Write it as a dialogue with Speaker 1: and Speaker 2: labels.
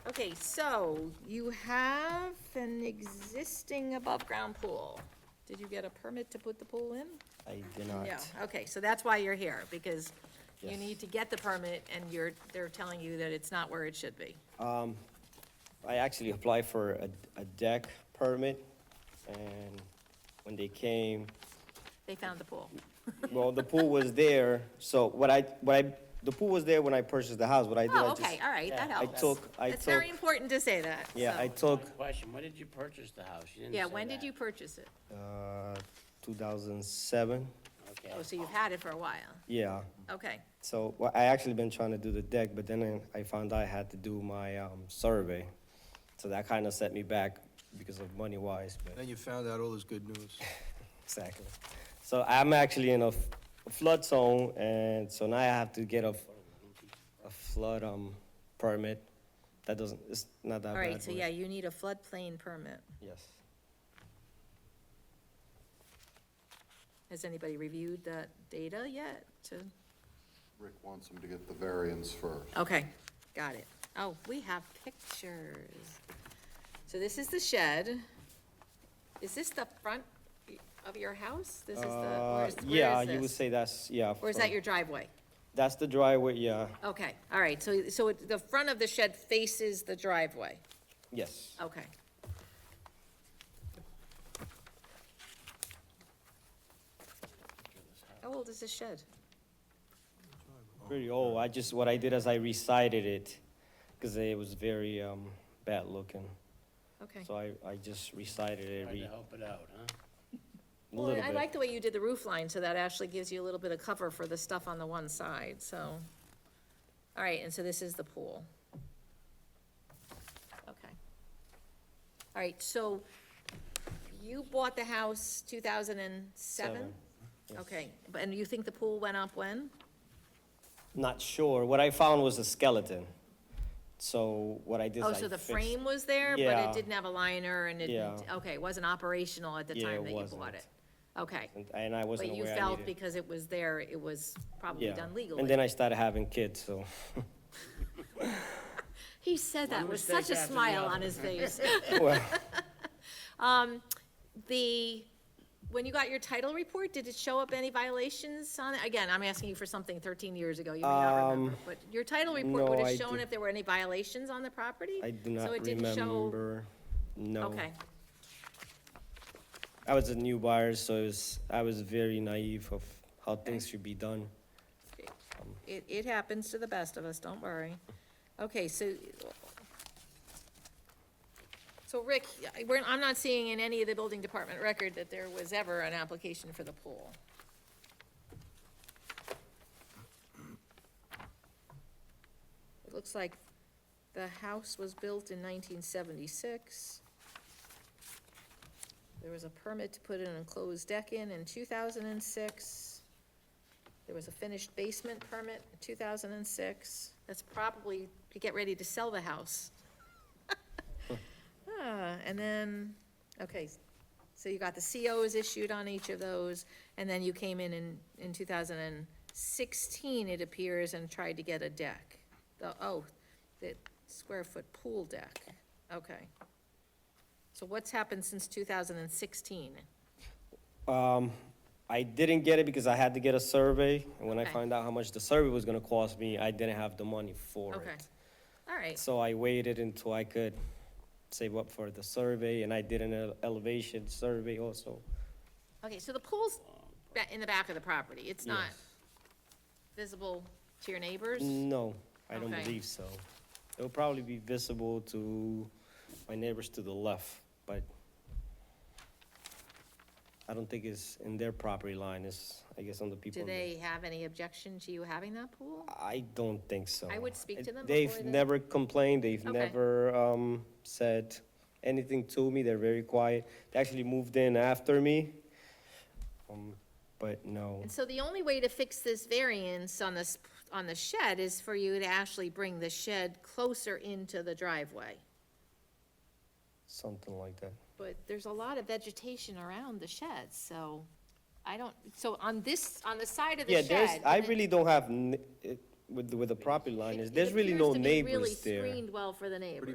Speaker 1: Okay, so you have an existing above-ground pool. Did you get a permit to put the pool in?
Speaker 2: I did not.
Speaker 1: Yeah, okay, so that's why you're here, because you
Speaker 2: Yes.
Speaker 1: need to get the permit, and you're, they're telling you that it's not where it should be.
Speaker 2: I actually applied for a, a deck permit, and when they came,
Speaker 1: They found the pool.
Speaker 2: well, the pool was there, so what I, what I, the pool was there when I purchased the house, what I did, I
Speaker 1: Oh,
Speaker 2: just.
Speaker 1: okay, all right, that
Speaker 2: I
Speaker 1: helps.
Speaker 2: took- I
Speaker 1: It's very
Speaker 2: took-
Speaker 1: important to say that,
Speaker 2: Yeah, I
Speaker 1: so.
Speaker 2: took,
Speaker 3: Question, when did you purchase the house? You didn't
Speaker 1: Yeah,
Speaker 3: say
Speaker 1: when did
Speaker 3: that.
Speaker 1: you purchase it?
Speaker 2: uh, two thousand seven,
Speaker 3: Okay.
Speaker 1: Oh, so you've had it for a while.
Speaker 2: yeah.
Speaker 1: Okay,
Speaker 2: So, well, I actually been trying to do the deck, but then I I found out I had to do my, um, survey. So that kind of set me back because of money wise, but.
Speaker 4: Then you found out all this good news.
Speaker 2: Exactly. So I'm actually in a f- a flood zone, and so now I have to get a, f- a flood, um, permit. That doesn't, it's not that
Speaker 1: all
Speaker 2: bad.
Speaker 1: right, so
Speaker 2: but-
Speaker 1: yeah, you need a floodplain permit.
Speaker 2: Yes.
Speaker 1: Has anybody reviewed that data yet to?
Speaker 5: Rick wants him to get the variance first.
Speaker 1: Okay, got it. Oh, we have pictures. So this is the shed. Is this the front of your house? This is the, or
Speaker 2: Uh,
Speaker 1: is,
Speaker 2: yeah,
Speaker 1: where
Speaker 2: you would
Speaker 1: is this?
Speaker 2: say that's, yeah.
Speaker 1: Or is
Speaker 2: from-
Speaker 1: that your driveway?
Speaker 2: That's the driveway, yeah,
Speaker 1: Okay, all right, so, so it- the front of the shed faces the driveway,
Speaker 2: yes.
Speaker 1: okay. How old is this shed?
Speaker 2: Pretty old. I just, what I did is I recited it, because it was very, um, bad looking.
Speaker 1: Okay.
Speaker 2: So I, I just recited it
Speaker 3: Tried to
Speaker 2: re-
Speaker 3: help it out, huh?
Speaker 2: a
Speaker 1: Well,
Speaker 2: little
Speaker 1: I like
Speaker 2: bit.
Speaker 1: the way you did the roof line, so that actually gives you a little bit of cover for the stuff on the one side, so. All right, and so this is the pool. Okay. All right, so you bought the house two thousand and seven?
Speaker 2: Seven, yes.
Speaker 1: Okay, but- and you think the pool went up when?
Speaker 2: Not sure. What I found was a skeleton. So what I did is
Speaker 1: Oh,
Speaker 2: I
Speaker 1: so the
Speaker 2: fixed-
Speaker 1: frame was there, but
Speaker 2: Yeah.
Speaker 1: it didn't have a liner and it, didn't-
Speaker 2: Yeah.
Speaker 1: okay, it wasn't operational at the
Speaker 2: Yeah,
Speaker 1: time
Speaker 2: it
Speaker 1: that you bought
Speaker 2: wasn't.
Speaker 1: it? Okay,
Speaker 2: And, and I wasn't
Speaker 1: but you
Speaker 2: aware I
Speaker 1: felt
Speaker 2: needed.
Speaker 1: because it was there, it was probably
Speaker 2: yeah.
Speaker 1: done legally?
Speaker 2: And then I started having kids, so
Speaker 1: He said that with
Speaker 3: mistake
Speaker 1: such a
Speaker 3: after the
Speaker 1: smile
Speaker 3: other.
Speaker 1: on his face.
Speaker 2: well,
Speaker 1: The, when you got your title report, did it show up any violations on it? Again, I'm asking you for something thirteen years ago, you may not remember, but your title report
Speaker 2: Um, no,
Speaker 1: would have
Speaker 2: I
Speaker 1: shown
Speaker 2: do-
Speaker 1: if there were any violations on the property?
Speaker 2: I do
Speaker 1: So
Speaker 2: not
Speaker 1: it didn't show.
Speaker 2: remember. No.
Speaker 1: Okay,
Speaker 2: I was a new buyer, so it was, I was very naive of how things should be done.
Speaker 1: it, it happens to the best of us, don't worry. Okay, so. So Rick, I- we're, I'm not seeing in any of the building department record that there was ever an application for the pool. It looks like the house was built in nineteen seventy-six. There was a permit to put an enclosed deck in in two thousand and six. There was a finished basement permit in two thousand and six. That's probably to get ready to sell the house. Ah, and then, okay, so you got the COs issued on each of those, and then you came in in, in two thousand and sixteen, it appears, and tried to get a deck. The, oh, the square foot pool deck, okay. So what's happened since two thousand and sixteen?
Speaker 2: Um, I didn't get it because I had to get a survey, and when
Speaker 1: Okay.
Speaker 2: I found out how much the survey was gonna cost me, I didn't have the money for
Speaker 1: Okay,
Speaker 2: it.
Speaker 1: all right.
Speaker 2: So I waited until I could save up for the survey, and I did an ele- elevation survey also.
Speaker 1: Okay, so the pool's ba- in the back of the property, it's not visible to your neighbors?
Speaker 2: No, I don't
Speaker 1: Okay.
Speaker 2: believe so. It'll probably be visible to my neighbors to the left, but I don't think it's in their property line, it's, I guess, on the people.
Speaker 1: Do
Speaker 2: on the-
Speaker 1: they have any objection to you having that pool?
Speaker 2: I don't think so.
Speaker 1: I would speak to them before
Speaker 2: They've
Speaker 1: they-
Speaker 2: never complained, they've
Speaker 1: Okay.
Speaker 2: never, um, said anything to me, they're very quiet. They actually moved in after me, um, but no.
Speaker 1: And so the only way to fix this variance on this, on the shed is for you to actually bring the shed closer into the driveway.
Speaker 2: Something like that.
Speaker 1: But there's a lot of vegetation around the shed, so I don't, so on this, on the side of the
Speaker 2: Yeah,
Speaker 1: shed.
Speaker 2: there's, I
Speaker 1: and it-
Speaker 2: really don't have, n- it- with, the- with the property line,
Speaker 1: it-
Speaker 2: is
Speaker 1: it
Speaker 2: there's really
Speaker 1: appears
Speaker 2: no
Speaker 1: to be really
Speaker 2: neighbors there.
Speaker 1: Screened well for the neighbors.